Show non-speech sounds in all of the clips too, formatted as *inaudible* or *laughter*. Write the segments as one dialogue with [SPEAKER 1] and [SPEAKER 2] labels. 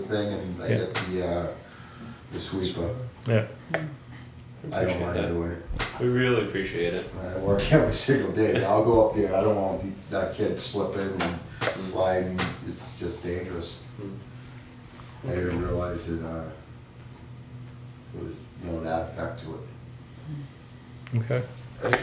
[SPEAKER 1] thing and I
[SPEAKER 2] Yeah.
[SPEAKER 1] get the, uh, the sweeper.
[SPEAKER 2] Yeah.
[SPEAKER 1] I don't mind
[SPEAKER 3] Appreciate that.
[SPEAKER 1] doing it.
[SPEAKER 3] We really appreciate it.
[SPEAKER 1] I work *laughs* every single day. I'll go up there. I don't want the- that kid slipping and sliding. It's just dangerous. I didn't realize that, uh, it was, you know, that effect to it.
[SPEAKER 2] Okay.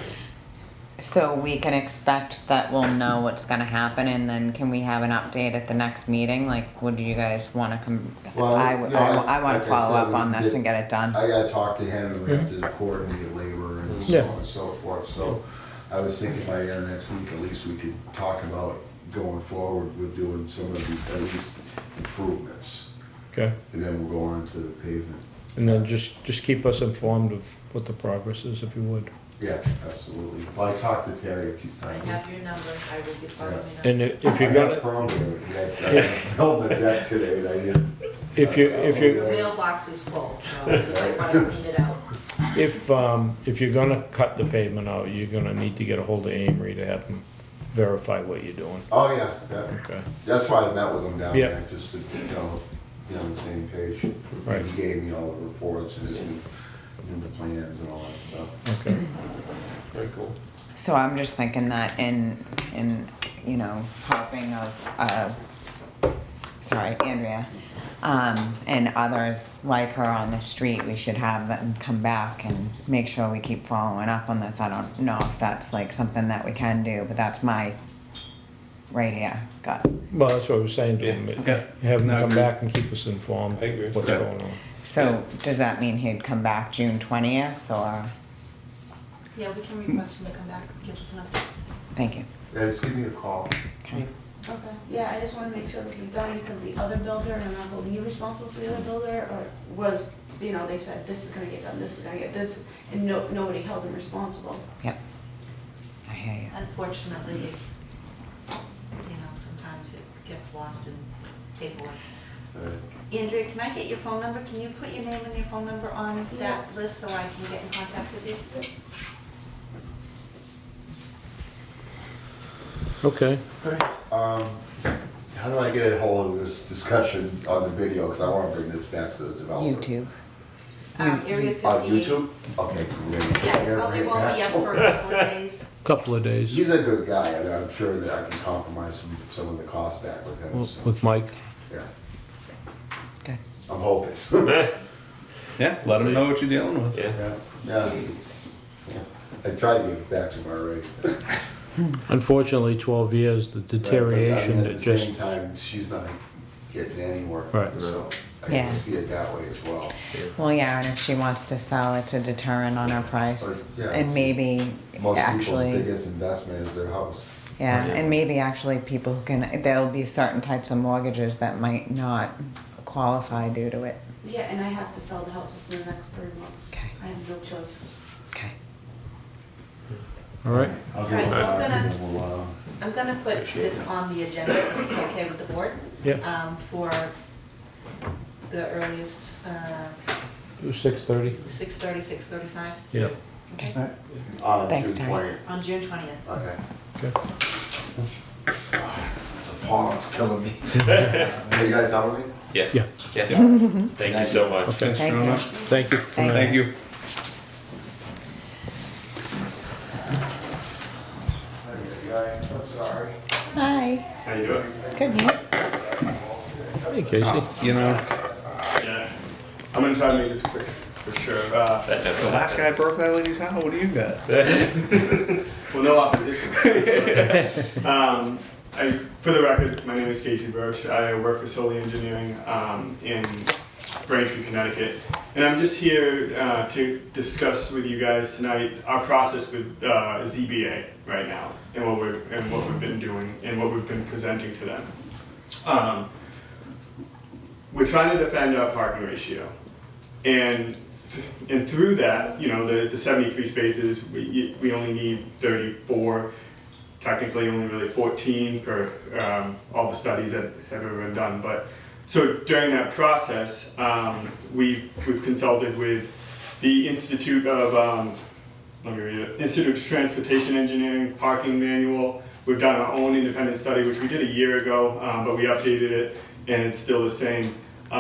[SPEAKER 4] So we can expect that we'll know what's gonna happen and then can we have an update at the next meeting? Like, would you guys wanna come?
[SPEAKER 1] Well,
[SPEAKER 4] I, w-
[SPEAKER 1] no,
[SPEAKER 4] I w-
[SPEAKER 1] I-
[SPEAKER 4] I wanna
[SPEAKER 1] like I
[SPEAKER 4] follow
[SPEAKER 1] said,
[SPEAKER 4] up
[SPEAKER 1] we
[SPEAKER 4] on this
[SPEAKER 1] did-
[SPEAKER 4] and get it done.
[SPEAKER 1] I gotta talk to him and we have to coordinate labor and so
[SPEAKER 2] Yeah.
[SPEAKER 1] on and so forth, so I was thinking by the end of next week, at least we could talk about going forward with doing some of these, at least improvements,
[SPEAKER 2] Okay.
[SPEAKER 1] and then we'll go on to the pavement.
[SPEAKER 2] And then just just keep us informed of what the progress is, if you would.
[SPEAKER 1] Yeah, absolutely. Well, I talked to Terry a few
[SPEAKER 5] I
[SPEAKER 1] times.
[SPEAKER 5] have your number, I will be following up.
[SPEAKER 2] And i- if you
[SPEAKER 1] I
[SPEAKER 2] got
[SPEAKER 1] a
[SPEAKER 2] it,
[SPEAKER 1] problem with it. I- I uh, *laughs* held the deck today and I didn't.
[SPEAKER 2] if you if you
[SPEAKER 5] The mailbox is full, so I want to clean it out.
[SPEAKER 2] if um if you're gonna cut the pavement out, you're gonna need to get a hold of Amory to have him verify what you're doing.
[SPEAKER 1] Oh, yeah, that-
[SPEAKER 2] Okay.
[SPEAKER 1] that's why I met with him down
[SPEAKER 2] Yeah.
[SPEAKER 1] there, just to, you know, be on the same page.
[SPEAKER 2] Right.
[SPEAKER 1] He gave me all the reports and his new, new plans and all that stuff.
[SPEAKER 2] Okay.
[SPEAKER 3] Very cool.
[SPEAKER 4] So I'm just thinking that in, in, you know, helping of, uh, sorry, Andrea, um, and others like her on the street, we should have them come back and make sure we keep following up on this. I don't know if that's like something that we can do, but that's my, right here, gut.
[SPEAKER 2] Well, that's what I was saying to him. but
[SPEAKER 6] Yeah.
[SPEAKER 2] Have him
[SPEAKER 6] No,
[SPEAKER 2] come
[SPEAKER 6] agree.
[SPEAKER 2] back and keep us informed.
[SPEAKER 3] I agree.
[SPEAKER 2] What's
[SPEAKER 6] Yeah.
[SPEAKER 2] going on?
[SPEAKER 4] So does that mean he'd come back June twentieth or,
[SPEAKER 5] Yeah, we can request him to come back, give us an update.
[SPEAKER 4] thank you.
[SPEAKER 1] Yeah, just give me a call.
[SPEAKER 4] Okay.
[SPEAKER 7] Okay, yeah, I just wanna make sure this is done because the other builder, and I'm not holding you responsible for the other builder, or was, you know, they said, this is gonna get done, this is gonna get this, and no, nobody held them responsible.
[SPEAKER 4] Yep. I hear you.
[SPEAKER 5] Unfortunately, it- you know, sometimes it gets lost in paperwork.
[SPEAKER 1] Uh,
[SPEAKER 5] Andrea, can I get your phone number? Can you put your name and your phone number on
[SPEAKER 7] Yeah.
[SPEAKER 5] that list so I can get in contact with you?
[SPEAKER 2] Okay.
[SPEAKER 1] Um, how do I get a hold of this discussion on the video? Cause I wanna bring this back to the developer.
[SPEAKER 4] YouTube.
[SPEAKER 5] Um, Area fifty-eight.
[SPEAKER 1] On YouTube? Okay. great.
[SPEAKER 5] Yeah, probably won't be up for a couple of days.
[SPEAKER 2] Couple of days.
[SPEAKER 1] He's a good guy, and I'm sure that I can compromise some, some of the cost back with him,
[SPEAKER 2] Well,
[SPEAKER 1] so,
[SPEAKER 2] With Mike.
[SPEAKER 1] yeah,
[SPEAKER 4] Okay.
[SPEAKER 1] I'm hoping. *laughs*
[SPEAKER 6] Yeah, let them know what you're dealing with.
[SPEAKER 3] Yeah.
[SPEAKER 1] Yeah, yeah, it's- yeah. I tried to get back to him already. but-
[SPEAKER 2] Unfortunately, 12 years, the
[SPEAKER 1] but I mean,
[SPEAKER 2] deterioration that
[SPEAKER 1] At the
[SPEAKER 2] just
[SPEAKER 1] same time, she's not getting anywhere,
[SPEAKER 2] Right.
[SPEAKER 1] so I
[SPEAKER 4] Yeah.
[SPEAKER 1] can see it that way as well.
[SPEAKER 4] Well, yeah, and if she wants to sell, it's a deterrent on her price.
[SPEAKER 1] Or- yeah,
[SPEAKER 4] And
[SPEAKER 1] it's-
[SPEAKER 4] maybe
[SPEAKER 1] Most people's
[SPEAKER 4] actually,
[SPEAKER 1] biggest investment is their house.
[SPEAKER 4] yeah,
[SPEAKER 3] Yeah.
[SPEAKER 4] and maybe actually people who can, there'll be certain types of mortgages that might not qualify due to it.
[SPEAKER 7] Yeah, and I have to sell the house within the next three months.
[SPEAKER 4] Okay.
[SPEAKER 7] I have no choice.
[SPEAKER 4] Okay.
[SPEAKER 2] all right.
[SPEAKER 1] I'll give
[SPEAKER 5] Right,
[SPEAKER 1] him
[SPEAKER 5] so I'm
[SPEAKER 1] a- I'll give
[SPEAKER 5] gonna-
[SPEAKER 1] him a while.
[SPEAKER 5] I'm gonna put this on the agenda, if it's okay with the board?
[SPEAKER 2] Yeah.
[SPEAKER 5] Um, for the earliest, uh,
[SPEAKER 2] 6:30.
[SPEAKER 5] six thirty, six thirty-five?
[SPEAKER 2] Yeah.
[SPEAKER 5] Okay,
[SPEAKER 1] Uh,
[SPEAKER 4] Thanks,
[SPEAKER 1] June
[SPEAKER 4] Terry.
[SPEAKER 1] 20th.
[SPEAKER 5] on June twentieth.
[SPEAKER 1] Okay.
[SPEAKER 2] Okay.
[SPEAKER 1] The pollen's killing me. Are you guys out with me?
[SPEAKER 3] Yeah.
[SPEAKER 2] Yeah.
[SPEAKER 3] Yeah. Thank you so much.
[SPEAKER 2] Okay.
[SPEAKER 4] Thank
[SPEAKER 6] Fair
[SPEAKER 4] you.
[SPEAKER 6] enough.
[SPEAKER 2] Thank you. for coming
[SPEAKER 6] Thank you.
[SPEAKER 1] I'm sorry.
[SPEAKER 4] Hi. How you doing? Good, man.
[SPEAKER 2] in. Hey, Casey.
[SPEAKER 6] You know,
[SPEAKER 8] Yeah, I'm gonna try to make this quick for sure. Uh,
[SPEAKER 3] That
[SPEAKER 6] the
[SPEAKER 3] definitely
[SPEAKER 6] last guy
[SPEAKER 3] happens.
[SPEAKER 6] broke that lady's house. What do you got?
[SPEAKER 8] well, no opposition. so it's okay. um, I, for the record, my name is Casey Roach. I work for Solely Engineering um, in Braintree, Connecticut, and I'm just here uh, to discuss with you guys tonight our process with uh, ZBA right now and what we're and what we've been doing and what we've been presenting to them. Um, we're trying to defend our parking ratio. And th- and through that, you know, the, the 73 spaces, we, you- we only need 34, technically only really 14 per um, all the studies that have ever been done. But so during that process, um, we've, we've consulted with the Institute of, um, let me read it, Institute of Transportation Engineering Parking Manual. We've done our own independent study, which we did a year ago, um, but we updated it and it's still the same.